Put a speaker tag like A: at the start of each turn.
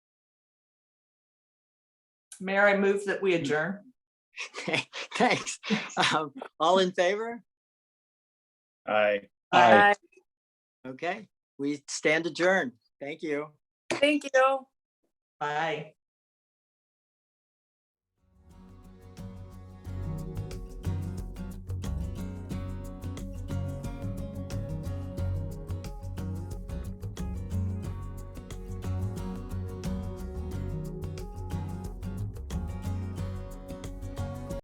A: Mayor, I move that we adjourn.
B: Okay, Thanks. Um, All in favor?
C: Aye.
D: Bye.
A: Aye.
B: Okay, we stand adjourned. Thank you.
D: Thank you.
A: Bye.